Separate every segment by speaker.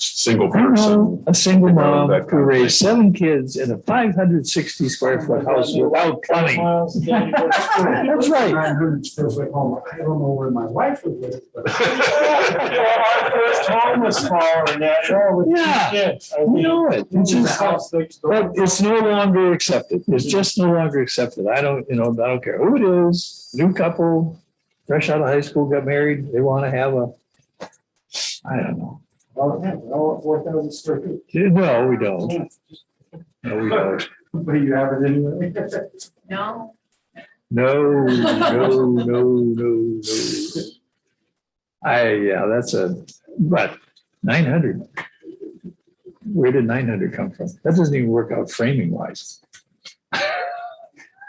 Speaker 1: single
Speaker 2: I don't
Speaker 1: person.
Speaker 2: know, a single mom
Speaker 1: That kind of
Speaker 2: who raised seven kids in a five hundred sixty square foot house without plumbing.
Speaker 3: That's
Speaker 2: right.
Speaker 3: Nine hundred square foot home. I don't know where my wife would live, but.
Speaker 4: Our first home was smaller than that, all
Speaker 3: Oh,
Speaker 4: with
Speaker 2: Yeah.
Speaker 4: two kids. I
Speaker 2: You
Speaker 4: mean,
Speaker 2: know it. It's
Speaker 4: the
Speaker 2: just-
Speaker 4: house next door.
Speaker 2: But it's no longer accepted. It's just no longer accepted. I don't, you know, I don't care who it is, new couple, fresh out of high school, got married, they want to have a, I don't know.
Speaker 3: Well, Oh, yeah, well, four thousand square feet.
Speaker 2: No, we don't. No, we don't.
Speaker 3: But you have it anyway.
Speaker 5: No.
Speaker 2: No, no, no, no, no. I, yeah, that's a, but nine hundred. Where did nine hundred come from? That doesn't even work out framing wise.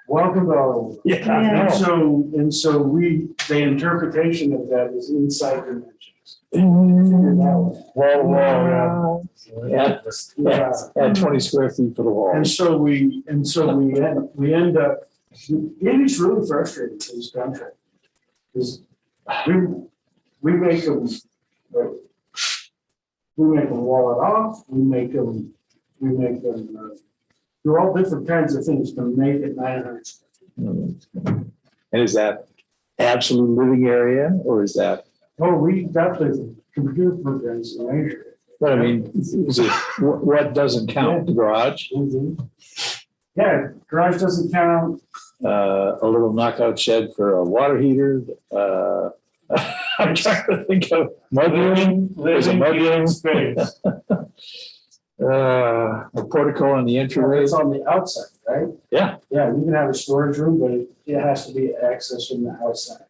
Speaker 3: Welcome to.
Speaker 2: Yeah.
Speaker 3: And so, and so we, the interpretation of that is inside dimensions.
Speaker 2: Wall,
Speaker 4: Wall, wall,
Speaker 2: Yeah.
Speaker 3: Yeah.
Speaker 2: Add twenty square feet for the wall.
Speaker 3: And so we, and so we, end- we end up, it is really frustrating for this country. Because we, we make them, like, we make them wall it off, we make them, we make them, uh, do all different kinds of things to make it nine hundred.
Speaker 2: And is that absolute living area or is that,
Speaker 3: Oh, we, that's the computer programs in Asia.
Speaker 2: but I mean, is it, what, what doesn't count? The garage,
Speaker 3: Yeah, garage doesn't count.
Speaker 2: uh, a little knockout shed for a water heater, uh, I'm trying to think of mudroom, there's a
Speaker 4: living
Speaker 2: mudroom.
Speaker 4: space.
Speaker 2: Uh, a portico on the entryway.
Speaker 3: It's on the outside, right?
Speaker 2: Yeah.
Speaker 3: Yeah, you can have a storage room, but it- it has to be accessed from the outside.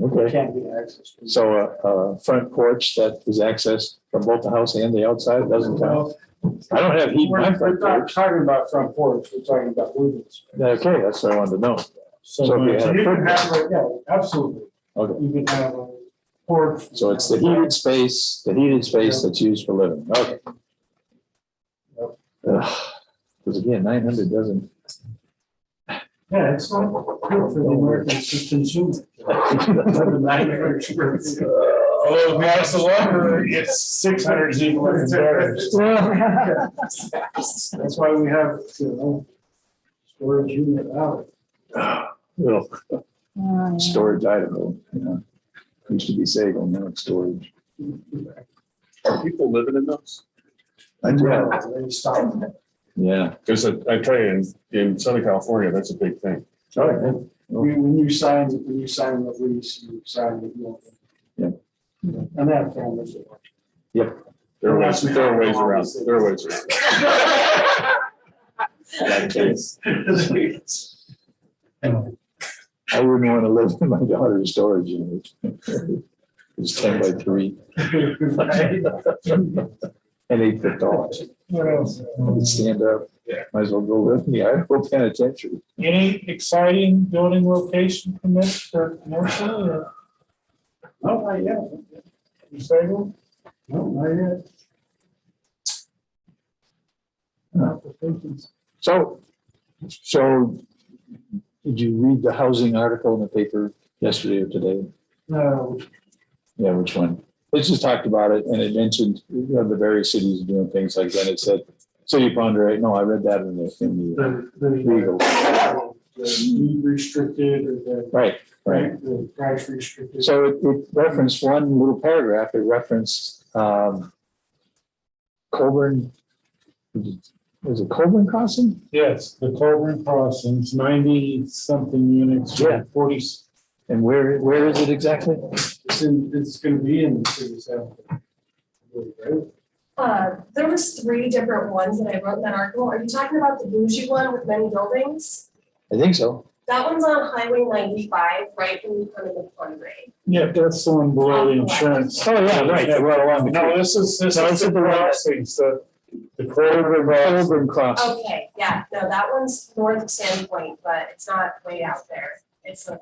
Speaker 3: It
Speaker 2: Okay.
Speaker 3: can't be accessed. from-
Speaker 2: So a, a front porch that is accessed from both the house and the outside doesn't count.
Speaker 3: Well,
Speaker 2: I don't have heat in my
Speaker 3: We're we're
Speaker 2: front
Speaker 3: not
Speaker 2: porch.
Speaker 3: talking about front porch, we're talking about living space.
Speaker 2: Okay, that's what I wanted to know. So if you had a
Speaker 3: So you can
Speaker 2: front
Speaker 3: have, like, yeah, absolutely.
Speaker 2: Okay.
Speaker 3: You can have a porch.
Speaker 2: So it's the heated space, the heated space that's used for living, okay. Because again, nine hundred doesn't,
Speaker 3: Yeah, it's not good for the Americans to consume. it.
Speaker 4: Oh, that's a lumber, it's six hundred zeros.
Speaker 3: That's why we have, you know, storage unit out.
Speaker 2: little
Speaker 5: Oh, yeah.
Speaker 2: storage Idaho, you know. Used to be Sagal, now it's storage.
Speaker 1: Are people living in those?
Speaker 2: Yeah,
Speaker 3: They stop.
Speaker 2: yeah.
Speaker 1: Because I I tell you, in, in Southern California, that's a big thing.
Speaker 2: All right.
Speaker 3: We, when you sign, when you sign the lease, you sign the. deal.
Speaker 2: Yeah.
Speaker 3: And that families. that watch.
Speaker 1: There are ways, there are ways around, there are ways around.
Speaker 2: I wouldn't want to live in my daughter's storage unit. It's ten by three and eight foot tall.
Speaker 3: What else?
Speaker 4: Um,
Speaker 2: Stand up, might as well go live in the Idaho penitentiary.
Speaker 4: Any exciting building location permits for commercial or
Speaker 3: No, not yet.
Speaker 4: disabled?
Speaker 3: No, not yet. Applications.
Speaker 2: So, so did you read the housing article in the paper yesterday or today?
Speaker 3: No,
Speaker 2: Yeah, which one? Let's just talked about it and it mentioned, you know, the various cities doing things like that. It said, city of Ponderay, no, I read that in the, in the,
Speaker 3: the, the,
Speaker 2: Legal.
Speaker 3: the need restricted or the,
Speaker 2: right, right.
Speaker 3: the price restricted.
Speaker 2: So it- it referenced one little paragraph, it referenced, um, Coburn, was it Coburn Crossing?
Speaker 4: Yes, the Colburn Crossings, ninety something units.
Speaker 2: Yeah.
Speaker 4: Forty,
Speaker 2: And where, where is it exactly?
Speaker 3: It's in, it's gonna be in the city center. Right?
Speaker 5: Uh, there was three different ones that I wrote in that article. Are you talking about the bougie one with many buildings?
Speaker 2: I think so.
Speaker 5: That one's on Highway ninety-five, right when you come into the fund grade.
Speaker 4: yeah, that's the one below the insurance.
Speaker 2: Oh, yeah, right, yeah, right along the creek.
Speaker 4: No, this is, this
Speaker 2: No,
Speaker 4: is
Speaker 2: it's
Speaker 4: the
Speaker 2: at the right.
Speaker 4: crossings, the, the Colburn Crossings.
Speaker 2: Coburn Crossing.
Speaker 5: Okay, yeah, no, that one's north of Sandpoint, but it's not way out there. It's a.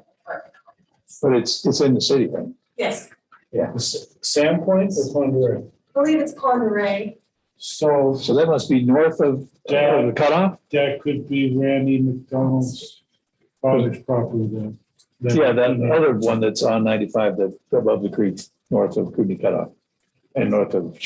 Speaker 2: But it's, it's in the city, right?
Speaker 5: Yes,
Speaker 4: Sandpoint is one word.
Speaker 5: I believe it's Ponderay.
Speaker 4: So
Speaker 2: So that must be north of, of the cutoff?
Speaker 4: that could be Randy McDonald's father's property then.
Speaker 2: Yeah, that other one that's on ninety-five, that above the creek, north of Kootenai Cutoff and north of